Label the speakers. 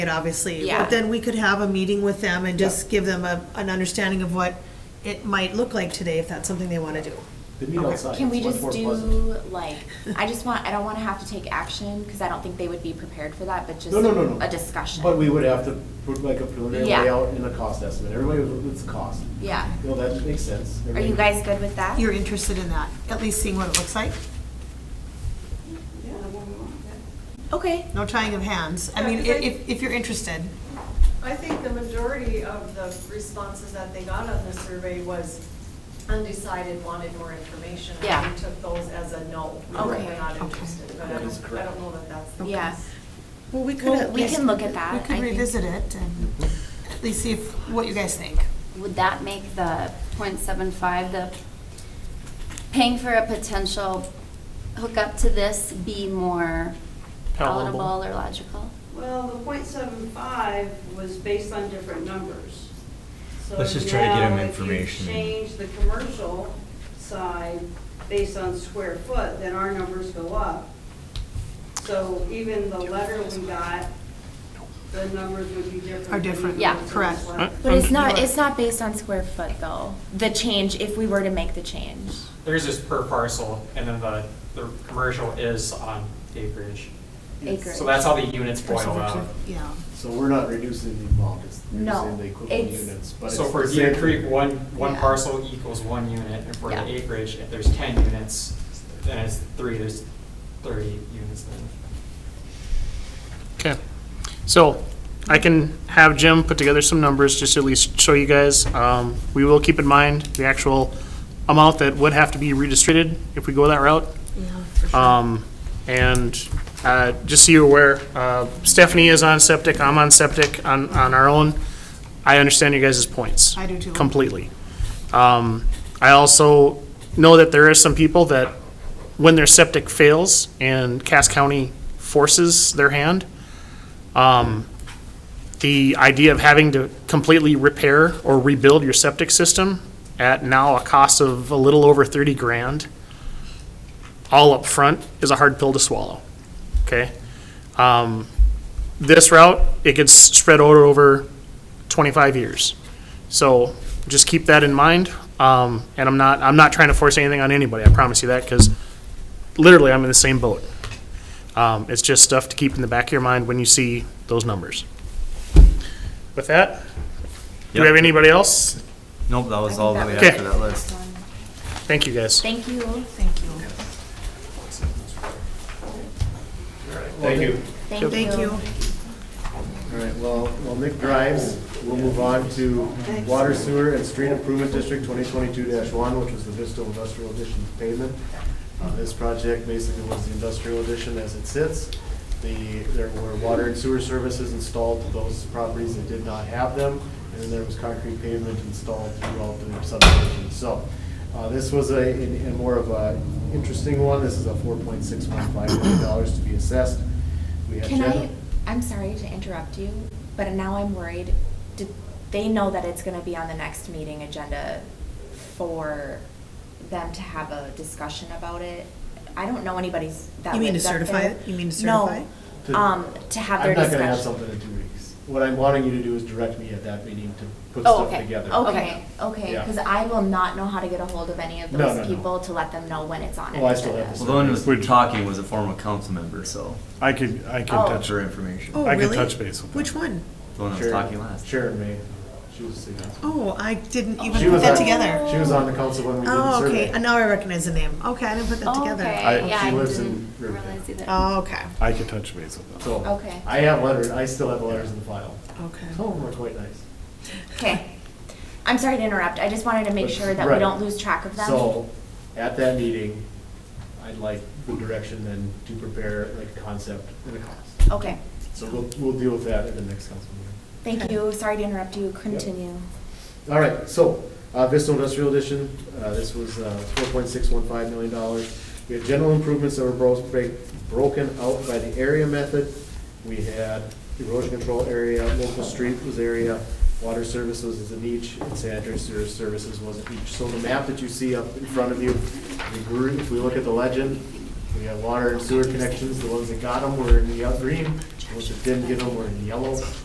Speaker 1: it, obviously.
Speaker 2: Yeah.
Speaker 1: But then we could have a meeting with them and just give them a, an understanding of what it might look like today, if that's something they want to do.
Speaker 3: They meet outside.
Speaker 2: Can we
Speaker 3: It's much
Speaker 2: just
Speaker 3: more
Speaker 2: do,
Speaker 3: pleasant.
Speaker 2: like, I just want, I don't wanna have to take action, cause I don't think they would be prepared for that, but just
Speaker 3: No, no, no, no.
Speaker 2: a discussion.
Speaker 3: But we would have to put like a preliminary
Speaker 2: Yeah.
Speaker 3: layout and a cost estimate. Everybody would, it's a cost.
Speaker 2: Yeah.
Speaker 3: You know, that makes sense.
Speaker 2: Are you
Speaker 3: Everybody-
Speaker 2: guys good with that?
Speaker 1: You're interested in that, at least seeing what it looks like?
Speaker 2: Okay,
Speaker 1: No tying of hands. I mean, i- if, if you're interested.
Speaker 4: I think the majority of the responses that they got on the survey was undecided, wanted more information. and
Speaker 2: Yeah.
Speaker 4: We took those as a no, we
Speaker 2: Okay.
Speaker 4: we're not
Speaker 1: Okay.
Speaker 4: interested, but I
Speaker 3: That is
Speaker 4: don't, I
Speaker 3: correct.
Speaker 4: don't know that that's the.
Speaker 2: yeah,
Speaker 1: Well, we
Speaker 2: Well, we can look at that,
Speaker 1: We
Speaker 2: I
Speaker 1: could
Speaker 2: think.
Speaker 1: revisit it and at least see if, what you guys think.
Speaker 5: Would that make the .75 the paying for a potential hookup to this be more
Speaker 6: Palatable.
Speaker 5: palatable or logical?
Speaker 7: Well, the .75 was based on different numbers. So
Speaker 8: Let's just try to get
Speaker 7: now,
Speaker 8: them
Speaker 7: if you
Speaker 8: information.
Speaker 7: Change the commercial side based on square foot, then our numbers go up. So even the letter we got, the numbers would be different.
Speaker 1: Are different,
Speaker 7: than the
Speaker 2: Yeah.
Speaker 7: numbers on
Speaker 1: correct.
Speaker 7: this letter.
Speaker 2: but it's
Speaker 6: Um,
Speaker 2: not,
Speaker 1: you're-
Speaker 2: it's not based on square foot though, the change, if we were to make the change.
Speaker 6: There's this per parcel, and then the, the commercial is on acreage.
Speaker 2: Acreage.
Speaker 6: So that's how the units boil out.
Speaker 1: Yeah.
Speaker 3: So we're not reducing the amount, it's
Speaker 2: No,
Speaker 3: reducing the equivalent
Speaker 2: it's-
Speaker 3: units. but
Speaker 6: So
Speaker 3: it's
Speaker 6: for
Speaker 3: the
Speaker 6: Deer
Speaker 3: same-
Speaker 6: Creek, one, one
Speaker 2: Yeah.
Speaker 6: parcel equals one unit, and for
Speaker 2: Yeah.
Speaker 6: the acreage, if there's ten units, then it's three, there's thirty units then.
Speaker 9: Okay, so I can have Jim put together some numbers, just to at least show you guys. Um, We will keep in mind the actual amount that would have to be redistributed if we go that route. Um, And uh, just so you're aware, uh, Stephanie is on septic, I'm on septic on, on our own. I understand you guys' points.
Speaker 1: I do too.
Speaker 9: Completely. Um, I also know that there are some people that, when their septic fails and Cass County forces their hand, um, the idea of having to completely repair or rebuild your septic system at now a cost of a little over thirty grand, all up front is a hard pill to swallow, okay? Um, this route, it gets spread out over twenty-five years. So just keep that in mind. Um, and I'm not, I'm not trying to force anything on anybody, I promise you that, because literally I'm in the same boat. Um, it's just stuff to keep in the back of your mind when you see those numbers. With that, do we have
Speaker 8: Yep.
Speaker 9: anybody else?
Speaker 8: Nope, that was all the way
Speaker 9: Okay.
Speaker 8: after that list.
Speaker 9: Thank you, guys.
Speaker 2: Thank you,
Speaker 1: Thank you.
Speaker 3: Thank you.
Speaker 2: thank you.
Speaker 1: Thank you.
Speaker 3: All right, well, while Nick drives, we'll move on to Water Sewer and Street Improvement District twenty twenty-two one, which was the Vista Industrial Addition pavement. Uh, this project basically was the industrial addition as it sits. The, there were water and sewer services installed to those properties that did not have them, and then there was concrete pavement installed throughout the subdivision. So, uh, this was a, a a more of a interesting one. This is a four point six one five million dollars to be assessed. We have
Speaker 2: Can I,
Speaker 3: Jennifer-
Speaker 2: I'm sorry to interrupt you, but now I'm worried, did they know that it's gonna be on the next meeting agenda for them to have a discussion about it? I don't know anybody's that
Speaker 1: You mean to
Speaker 2: lives up
Speaker 1: certify
Speaker 2: there.
Speaker 1: it? You mean to certify
Speaker 2: No,
Speaker 3: To-
Speaker 2: um, to have their
Speaker 3: I'm not
Speaker 2: discussion.
Speaker 3: gonna have something in two weeks. What I'm wanting you to do is direct me at that meeting to put
Speaker 2: Oh,
Speaker 3: stuff
Speaker 2: okay,
Speaker 3: together.
Speaker 2: okay, okay,
Speaker 3: Yeah.
Speaker 2: because I will not know how to get a hold of any of
Speaker 3: No, no,
Speaker 2: those
Speaker 3: no.
Speaker 2: people to let them know when it's on an
Speaker 3: Oh, I still
Speaker 2: agenda.
Speaker 3: have
Speaker 8: Well, the one who was talking was a former council member, so
Speaker 10: I could, I can
Speaker 2: Oh.
Speaker 10: touch,
Speaker 8: for information.
Speaker 1: Oh,
Speaker 10: I could
Speaker 1: really?
Speaker 10: touch base with them.
Speaker 1: Which one?
Speaker 8: The one that was
Speaker 3: Sharon-
Speaker 8: talking last.
Speaker 3: Sharon May, she was the council.
Speaker 1: Oh, I didn't even
Speaker 3: She
Speaker 1: put
Speaker 3: was
Speaker 1: that
Speaker 3: on-
Speaker 1: together.
Speaker 3: She was on the council when we did the
Speaker 1: Oh,
Speaker 3: survey.
Speaker 1: okay. And Now I recognize the name. Okay, I didn't put that together.
Speaker 5: Okay,
Speaker 3: I-
Speaker 5: yeah,
Speaker 3: she
Speaker 5: I
Speaker 3: lives in
Speaker 5: didn't
Speaker 3: Riverdale.
Speaker 5: realize either.
Speaker 1: Oh, okay,
Speaker 10: I could touch base with them.
Speaker 3: So,
Speaker 2: Okay.
Speaker 3: I have letters, I still have the letters in the file.
Speaker 1: okay.
Speaker 3: Some of them are quite nice.
Speaker 2: Okay, I'm sorry to interrupt, I just wanted to make
Speaker 3: But-
Speaker 2: sure that we
Speaker 3: right.
Speaker 2: don't lose track of them.
Speaker 3: So, at that meeting, I'd like the direction then to prepare like a concept and a cost.
Speaker 2: Okay,
Speaker 3: So we'll, we'll deal with that at the next council meeting.
Speaker 2: thank you, sorry to interrupt you, continue.
Speaker 3: All right, so, uh, Vista Industrial Edition, uh, this was, uh, four point six one five million dollars. We had general improvements that were bro- break, broken out by the area method. We had erosion control area, local street was area, water services is in each, and sanitary sewer services was in each. So the map that you see up in front of you, the group, if we look at the legend, we have water and sewer connections, the ones that got them were in the green, Those that didn't get them were in yellow.